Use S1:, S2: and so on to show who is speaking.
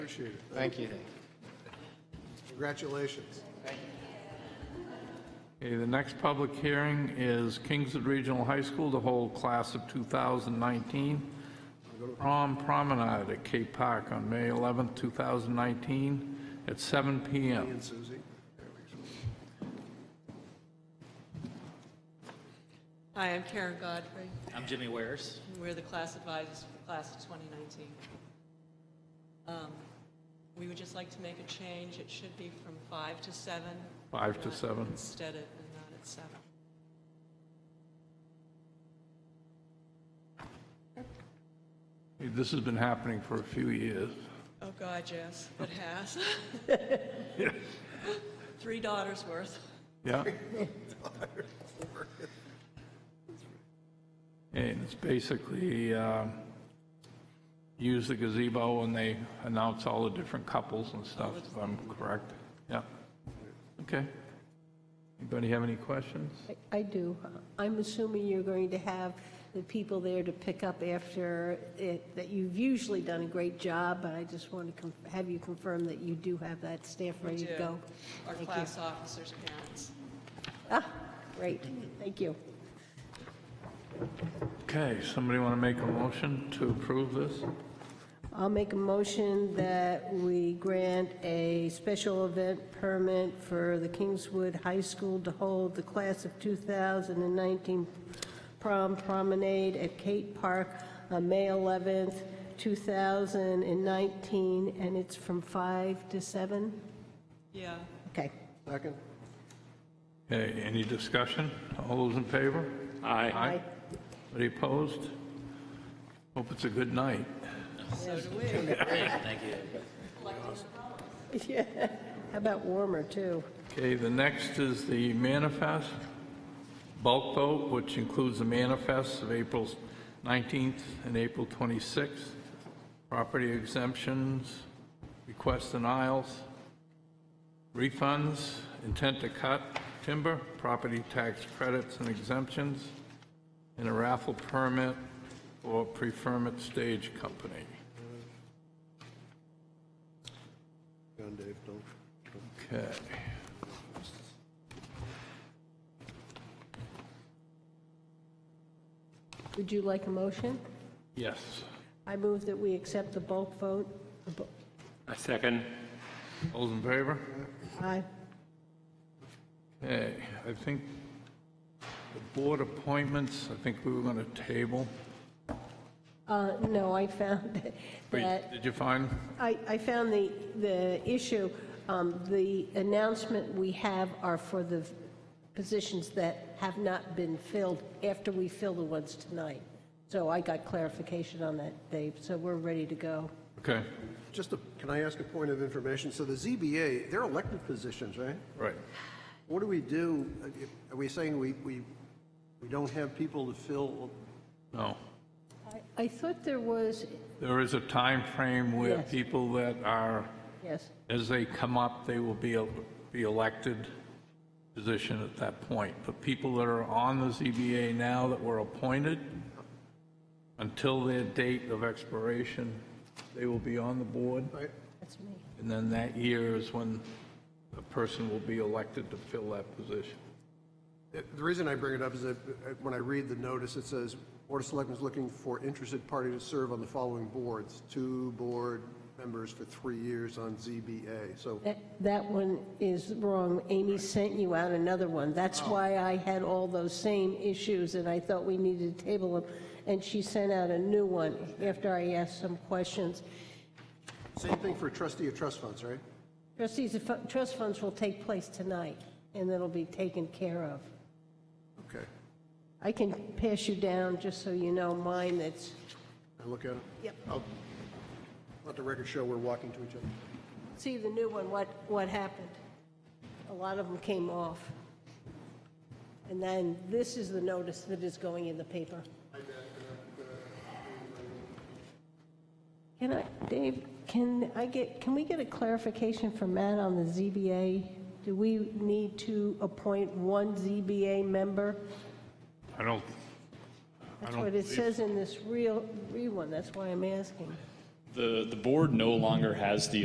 S1: Appreciate it.
S2: Thank you.
S1: Congratulations.
S3: Okay, the next public hearing is Kingswood Regional High School to hold class of 2019 prom promenade at Cape Park on May 11th, 2019 at 7 PM.
S1: And Susie.
S4: Hi, I'm Karen Godfrey.
S5: I'm Jimmy Wares.
S4: We're the class advisors for the class of 2019. Um, We would just like to make a change. It should be from 5 to 7.
S3: Five to
S4: not
S3: seven.
S4: Instead of, and not at 7.
S3: This has been happening for a few years.
S4: Oh, God, yes, it has. Three daughters worth.
S3: Yeah? And it's basically, um, use the gazebo when they announce all the different couples and stuff, if I'm correct. Yeah. Okay. Anybody have any questions?
S6: I- I do. I'm assuming you're going to have the people there to pick up after it, that you've usually done a great job, but I just want to conf- have you confirm that you do have that staff
S4: We
S6: ready
S4: do.
S6: to go.
S4: Our
S6: Thank you.
S4: class officers' parents.
S6: Ah, great, thank you.
S3: Okay, somebody want to make a motion to approve this?
S6: I'll make a motion that we grant a special event permit for the Kingswood High School to hold the class of 2019 prom promenade at Kate Park on May 11th, 2019, and it's from 5 to 7?
S4: Yeah.
S6: Okay.
S1: Second?
S3: Okay, any discussion? All those in favor?
S5: Aye.
S6: Aye.
S3: Any opposed? Hope it's a good night.
S4: So do we.
S5: Thank you.
S6: Yeah. How about warmer, too?
S3: Okay, the next is the manifest, bulk vote, which includes the manifests of April 19th and April 26th, property exemptions, request denials, refunds, intent to cut timber, property tax credits and exemptions, and a raffle permit for preferment stage company.
S1: Go on, Dave, don't.
S3: Okay.
S6: Would you like a motion?
S3: Yes.
S6: I move that we accept the bulk vote. The bu-
S7: A second.
S3: All in favor?
S6: Aye.
S3: Okay, Uh, I think the board appointments, I think we were going to table.
S6: Uh, No, I found
S3: Wait,
S6: that
S3: Did you find?
S6: I, I found the, the issue, um, the announcement we have are for the positions that have not been filled after we fill the ones tonight. So I got clarification on that, Dave, so we're ready to go.
S3: Okay,
S1: Just a, can I ask a point of information? So the ZBA, they're elected positions, right?
S3: right.
S1: What do we do? uh, Are we saying we, we, we don't have people to fill?
S3: No.
S6: I- I thought there was,
S3: There is a time frame where
S6: Yes.
S3: people that are,
S6: yes,
S3: as they come up, they will be, be elected position at that point. But people that are on the ZBA now that were appointed, until their date of expiration, they will be on the board.
S1: Right?
S6: that's me.
S3: And then that year is when a person will be elected to fill that position.
S1: The the reason I bring it up is that uh, when I read the notice, it says, Board of Selectmen is looking for interested party to serve on the following boards, two board members for three years on ZBA. So
S6: That, that one is wrong. Amy sent you out another one. That's why I had all those same issues, and I thought we needed to table them. And she sent out a new one after I asked some questions.
S1: same thing for trustee of trust funds, right?
S6: Trustees, the fu- trust funds will take place tonight, and it'll be taken care of.
S1: Okay.
S6: I can pass you down, just so you know, mine that's,
S1: I look at it?
S6: Yep.
S1: I'll Let the record show we're walking to each other.
S6: see the new one, what, what happened. A lot of them came off. And then this is the notice that is going in the paper. Can I, Dave, can I get, can we get a clarification from Matt on the ZBA? Do we need to appoint one ZBA member?
S3: I don't, I
S6: That's
S3: don't
S6: what it
S3: believe,
S6: says in this real, real one, that's why I'm asking.
S2: The, the board no longer has the